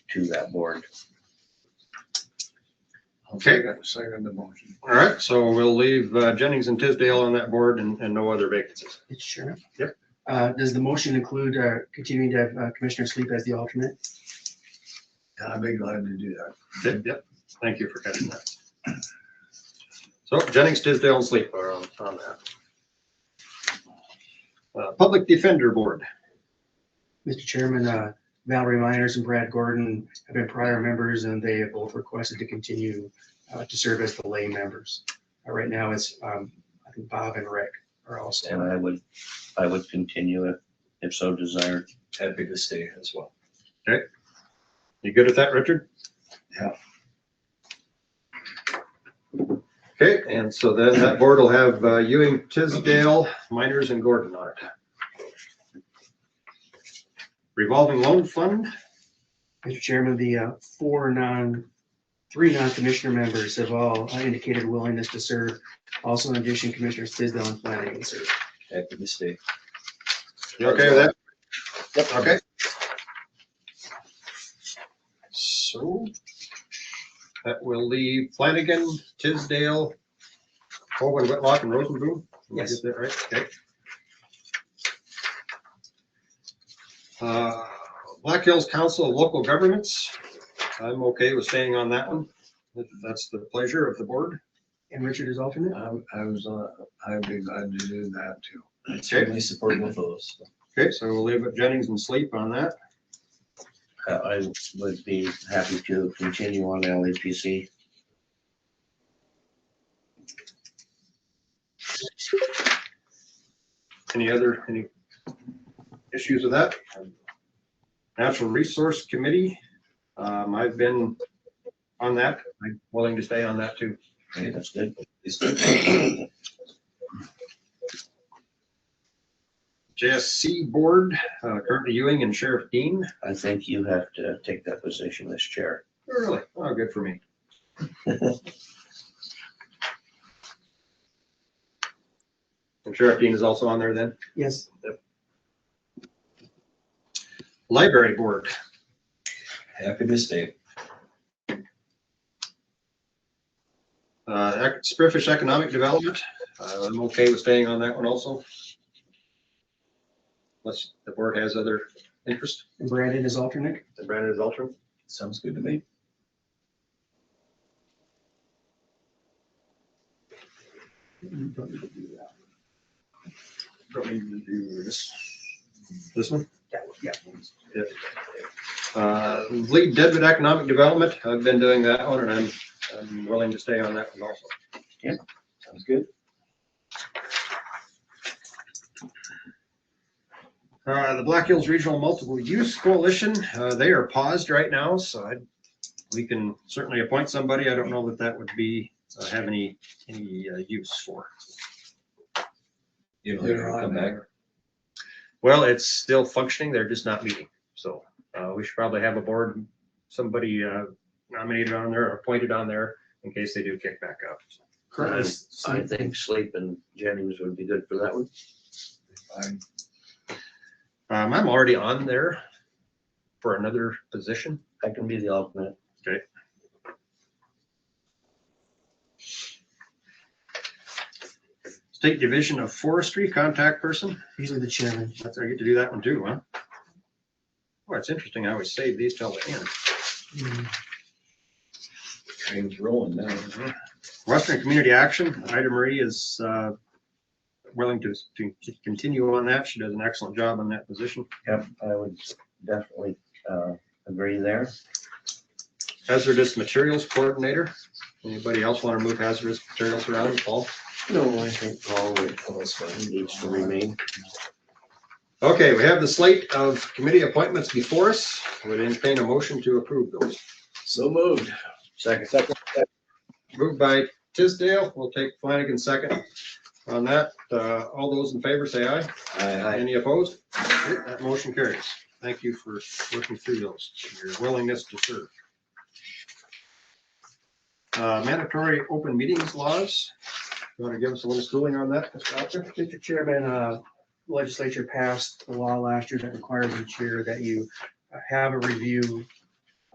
to that board. Okay. Second- Second the motion. All right, so we'll leave uh, Jennings and Tisdale on that board and, and no other vacancies. Mr. Chairman? Yep. Uh, does the motion include, uh, continuing to have uh, Commissioner Sleep as the alternate? And I'd be glad to do that. Yep, yep. thank you for catching that. So Jennings, Tisdale, and Sleep are on, on that. Uh, Public Defender Board, Mr. Chairman, uh, Valerie Myers and Brad Gordon have been prior members and they have both requested to continue, uh, to serve as the lay members. Uh, Right now it's, um, I think Bob and Rick are also. And I would, I would continue if, if so desired. Happy to stay as well. you good with that, Richard? Yeah. Okay, and so then that board will have uh, Ewing, Tisdale, Miners, and Gordon on it. Revolving Loan Fund, Mr. Chairman, the uh, four non, three non-commissioner members have all uh, indicated willingness to serve. Also in addition, Commissioners Tisdale and Flanagan serve. Happy to stay. you okay with that? Yep. Okay. So that will leave Flanagan, Tisdale, Colvin, Whitlock, and Rosenboom. Did I Yes. get that right? Okay. Uh, Black Hills Council of Local Governments. I'm okay with staying on that one. If That's the pleasure of the board. And Richard is alternate? I, I was, uh, I'd be glad to do that too. I certainly support both of those. Okay, so we'll leave it Jennings and Sleep on that. I- I would be happy to continue on LEPC. Any other, any issues with that? Natural Resource Committee, um, I've been on that, I'm willing to stay on that too. I think that's good. It's good. JSC Board, uh, currently Ewing and Sheriff Dean. I think you have to take that position as chair. Really? Oh, good for me. And Sheriff Dean is also on there then. Yes. Library Board, Happy to stay. uh, Ec- Spearfish Economic Development, uh, I'm okay with staying on that one also. Unless the board has other interest. And Brandon is alternate? And Brandon is alternate. Sounds good to me. Don't need to do This this one? That one, Yeah. Uh, Lead Deadwood Economic Development, I've been doing that one, and I'm, I'm willing to stay on that one also. Sounds good. Uh, The Black Hills Regional Multiple Use Coalition, uh, they are paused right now, so I, we can certainly appoint somebody. I don't know that that would be, uh, have any, any uh, use for. You know, You're on come back. Well, it's still functioning, they're just not meeting, so uh, we should probably have a board, somebody uh, nominated on there, or appointed on there, in case they do kick back up. I I think Sleep and Jennings would be good for that one. Fine. Um, I'm already on there for another position. I can be the alternate. State Division of Forestry contact person. Usually the chairman. That's, I get to do that one too, huh? Well, it's interesting. I always save these till the end. Train's rolling now. Western Community Action, Ida Marie is uh, willing to, to continue on that. She does an excellent job on that position. Yep, I would definitely uh, agree there. Hazardous Materials Coordinator. Anybody else want to move hazardous materials around, Paul? No, I think Paul would- Paul's fine. needs to remain. Okay, we have the slate of committee appointments before us. Would entertain a motion to approve those. So moved. Second. Moved by Tisdale. We'll take Flanagan second on that. Uh, All those in favor, say aye. Aye. Any opposed? Okay, That motion carries. Thank you for working through those, your willingness to serve. Uh, Mandatory open meetings laws. You want to give us a little schooling on that, Mr. Doctor? Mr. Chairman, uh, legislature passed the law last year that requires each year that you have a review